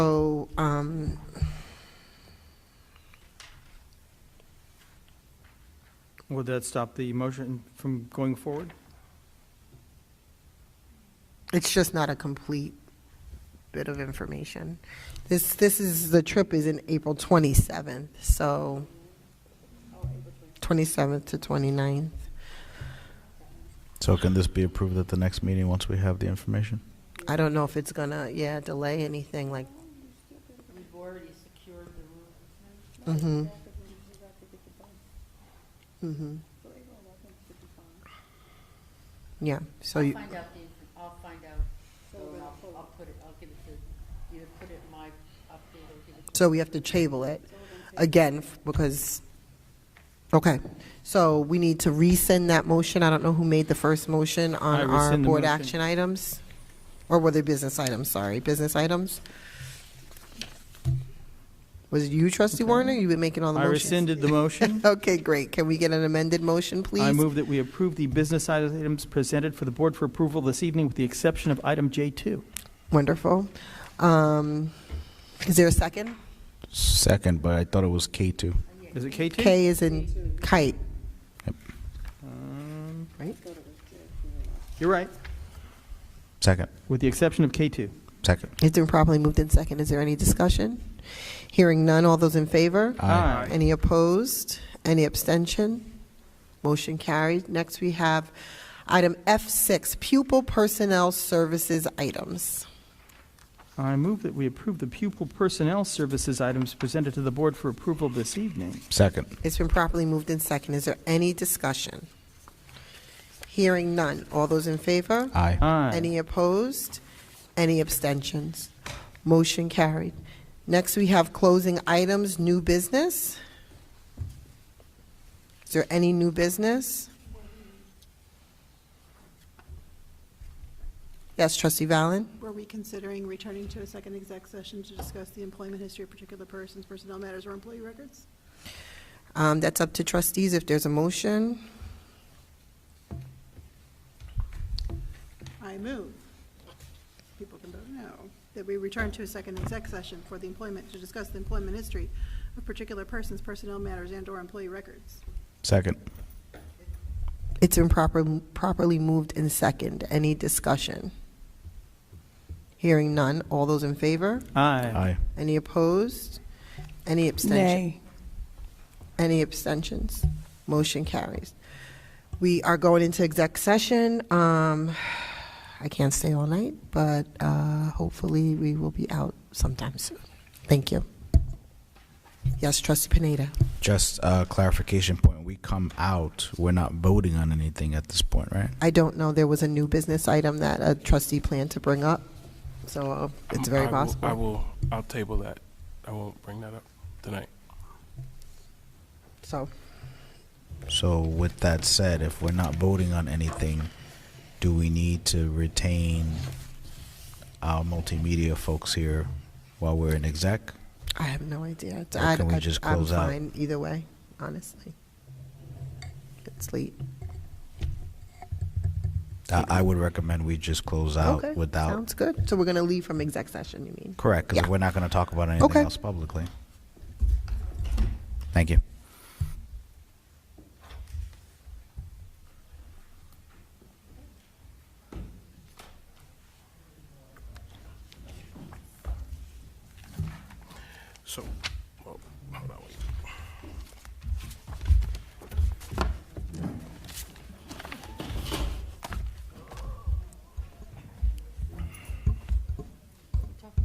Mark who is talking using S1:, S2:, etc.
S1: um,
S2: Would that stop the motion from going forward?
S1: It's just not a complete bit of information. This, this is, the trip is in April 27th, so 27th to 29th.
S3: So can this be approved at the next meeting once we have the information?
S1: I don't know if it's gonna, yeah, delay anything like,
S4: We've already secured the roof.
S1: mm-hmm. Mm-hmm. Yeah, so
S4: I'll
S1: you,
S4: find out the, inf- I'll find out, though, and I'll, I'll put it, I'll give it to, either put it in my update or give it to.
S1: so we have to table it again f- because, okay. So we need to resend that motion. I don't know who made the first motion
S2: I
S1: on our
S2: rescind the
S1: board
S2: motion.
S1: action items. Or were they business items, sorry, business items? Was it you, trustee Warner? You've been making all the
S2: I
S1: motions?
S2: rescinded the motion.
S1: Okay, great. Can we get an amended motion, please?
S2: I move that we approve the business items presented for the board for approval this evening with the exception of item J2.
S1: Wonderful. Um, Is there a second?
S3: Second, but I thought it was K2.
S2: Is it K2?
S1: K is in kite,
S2: Um,
S1: right?
S2: You're right,
S3: Second,
S2: with the exception of K2.
S3: second.
S1: It's been properly moved in second. Is there any discussion? Hearing none, all those in favor?
S2: Aye.
S1: Any opposed? Any abstention? Motion carried. Next, we have item F6, pupil personnel services items.
S2: I move that we approve the pupil personnel services items presented to the board for approval this evening.
S3: Second,
S1: It's been properly moved in second. Is there any discussion? Hearing none, all those in favor?
S3: aye.
S2: Aye.
S1: Any opposed? Any abstentions? Motion carried. Next, we have closing items, new business. Is there any new business? Yes, trustee Valen?
S5: Were we considering returning to a second exec session to discuss the employment history of particular persons, personnel matters, or employee records?
S1: Um, That's up to trustees if there's a motion.
S5: I move, people can vote no, that we return to a second exec session for the employment, to discuss the employment history of particular persons, personnel matters, and/or employee records.
S3: Second,
S1: It's been proper, properly moved in second. Any discussion? Hearing none. All those in favor?
S2: Aye.
S3: aye.
S1: Any opposed? Any abstentions?
S6: Nay.
S1: Any abstentions? Motion carries. We are going into exec session. Um, I can't stay all night, but uh, hopefully we will be out sometime soon. Thank you. Yes, trustee Pineda.
S3: Just a clarification point. We come out, we're not voting on anything at this point, right?
S1: I don't know, there was a new business item that a trustee planned to bring up, so uh, it's
S7: Mm, I
S1: very
S7: will- I
S1: possible.
S7: will, I'll table that. I won't bring that up tonight.
S1: So,
S3: So with that said, if we're not voting on anything, do we need to retain our multimedia folks here while we're in exec?
S1: I have no idea.
S3: Or
S1: I-
S3: can we
S1: I-
S3: just close out?
S1: I'm fine either way, honestly. It's late.
S3: I, I would recommend we just close out
S1: Okay,
S3: without
S1: Sounds good. So we're going to leave from exec session, you mean?
S3: Correct, because
S1: Yeah.
S3: we're not going to talk about anything
S1: Okay.
S3: else publicly. Thank you.
S7: So